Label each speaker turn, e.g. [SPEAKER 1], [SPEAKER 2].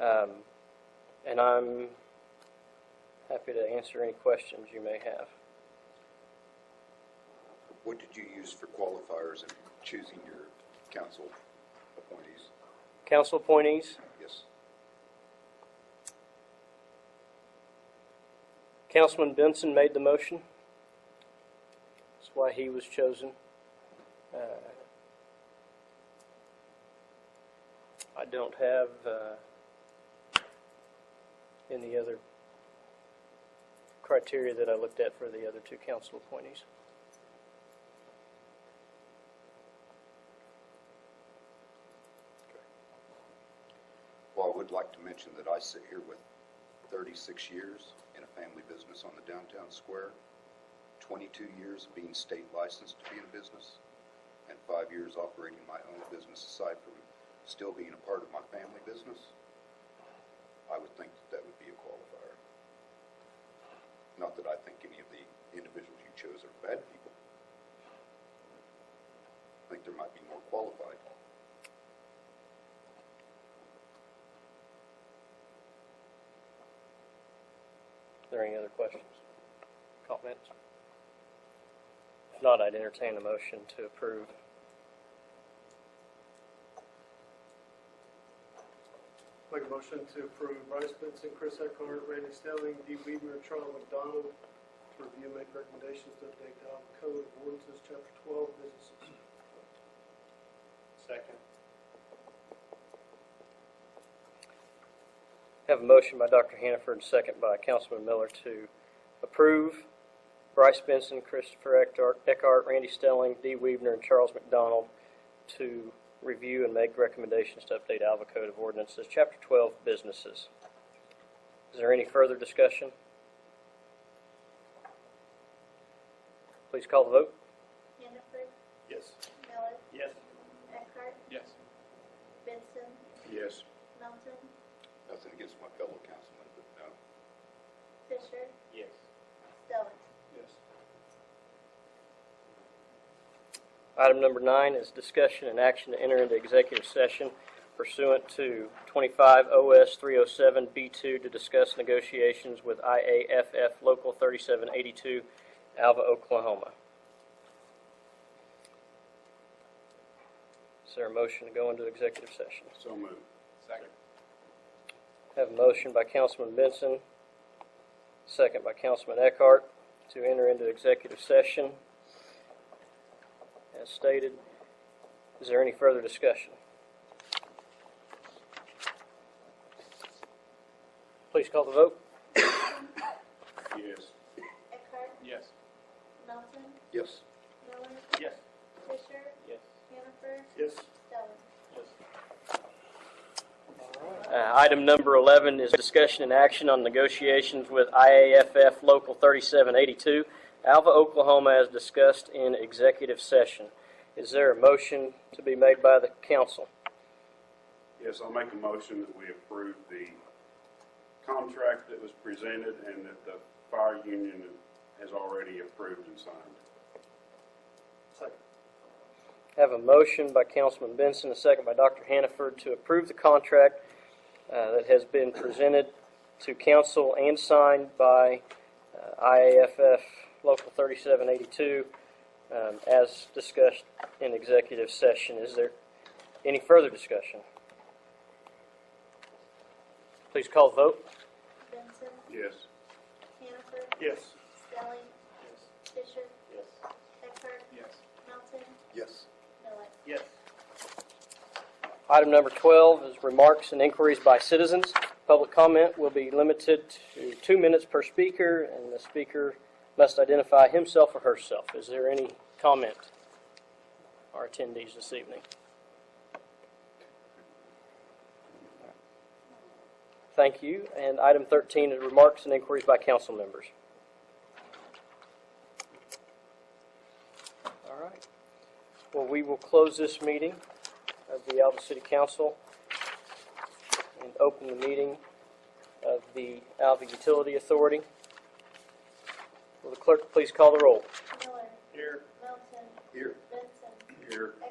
[SPEAKER 1] Um, And I'm happy to answer any questions you may have.
[SPEAKER 2] What did you use for qualifiers in choosing your council appointees?
[SPEAKER 1] Council appointees,
[SPEAKER 2] Yes,
[SPEAKER 1] Councilman Benson made the motion. That's why he was chosen. Uh, I don't have uh, any other criteria that I looked at for the other two council appointees.
[SPEAKER 2] okay. Well, I would like to mention that I sit here with 36 years in a family business on the downtown square, 22 years of being state licensed to be in business, and five years operating my own business aside from still being a part of my family business. I would think that that would be a qualifier. Not that I think any of the individuals you chose are bad people. I think there might be more qualified.
[SPEAKER 1] Are there any other questions, comments? If not, I'd entertain a motion to approve.
[SPEAKER 3] Make a motion to approve Bryce Benson, Chris Eckhart, Randy Stelling, Dee Weidner, Charles McDonald to review and make recommendations to update Alva Code of Ordinances, Chapter 12, Businesses. Second.
[SPEAKER 1] Have a motion by Dr. Hannaford, and second by Councilman Miller to approve Bryce Benson, Christopher Eckhart- Eckhart, Randy Stelling, Dee Weaver, and Charles McDonald to review and make recommendations to update Alva Code of Ordinances, Chapter 12, Businesses. Is there any further discussion? Please call the vote.
[SPEAKER 4] Hannaford,
[SPEAKER 3] Yes.
[SPEAKER 4] Miller,
[SPEAKER 3] Yes.
[SPEAKER 4] Eckhart,
[SPEAKER 3] Yes.
[SPEAKER 4] Benson,
[SPEAKER 2] Yes.
[SPEAKER 4] Melton,
[SPEAKER 2] Nothing against my fellow councilmen, but uh, no.
[SPEAKER 4] Fisher,
[SPEAKER 3] Yes.
[SPEAKER 4] Stelling.
[SPEAKER 3] Yes.
[SPEAKER 1] Item number nine is discussion and action to enter into executive session pursuant to 25 OS 307B2 to discuss negotiations with IAFF Local 3782, Alva, Oklahoma. Is there a motion to go into executive session?
[SPEAKER 2] So moved. Second.
[SPEAKER 1] Have a motion by Councilman Benson, second by Councilman Eckhart, to enter into executive session as stated. Is there any further discussion? Please call the vote.
[SPEAKER 2] Yes.
[SPEAKER 4] Eckhart,
[SPEAKER 3] Yes.
[SPEAKER 4] Melton,
[SPEAKER 2] Yes.
[SPEAKER 4] Miller,
[SPEAKER 3] Yes.
[SPEAKER 4] Fisher,
[SPEAKER 3] Yes.
[SPEAKER 4] Hannaford,
[SPEAKER 3] Yes.
[SPEAKER 4] Stelling.
[SPEAKER 3] Yes.
[SPEAKER 1] Uh, Item number 11 is discussion and action on negotiations with IAFF Local 3782, Alva, Oklahoma, as discussed in executive session. Is there a motion to be made by the council?
[SPEAKER 5] Yes, I'll make a motion that we approve the contract that was presented and that the fire union has already approved and signed.
[SPEAKER 3] Second.
[SPEAKER 1] Have a motion by Councilman Benson, a second by Dr. Hannaford to approve the contract uh, that has been presented to council and signed by uh, IAFF Local 3782 um, as discussed in executive session. Is there any further discussion? Please call the vote.
[SPEAKER 4] Benson,
[SPEAKER 5] Yes.
[SPEAKER 4] Hannaford,
[SPEAKER 3] Yes.
[SPEAKER 4] Stelling, Fisher,
[SPEAKER 3] Yes.
[SPEAKER 4] Eckhart,
[SPEAKER 3] Yes.
[SPEAKER 4] Melton,
[SPEAKER 2] Yes.
[SPEAKER 4] Miller.
[SPEAKER 3] Yes.
[SPEAKER 1] Item number 12 is remarks and inquiries by citizens. Public comment will be limited to two minutes per speaker, and the speaker must identify himself or herself. Is there any comment, our attendees this evening? Thank you. And item 13 is remarks and inquiries by council members. All right. Well, we will close this meeting of the Alva City Council and open the meeting of the Alva Utility Authority. Will the clerk please call the roll?
[SPEAKER 4] Miller,
[SPEAKER 3] Here.
[SPEAKER 4] Melton,
[SPEAKER 2] Here.
[SPEAKER 4] Benson,
[SPEAKER 5] Here.
[SPEAKER 4] Eckhart,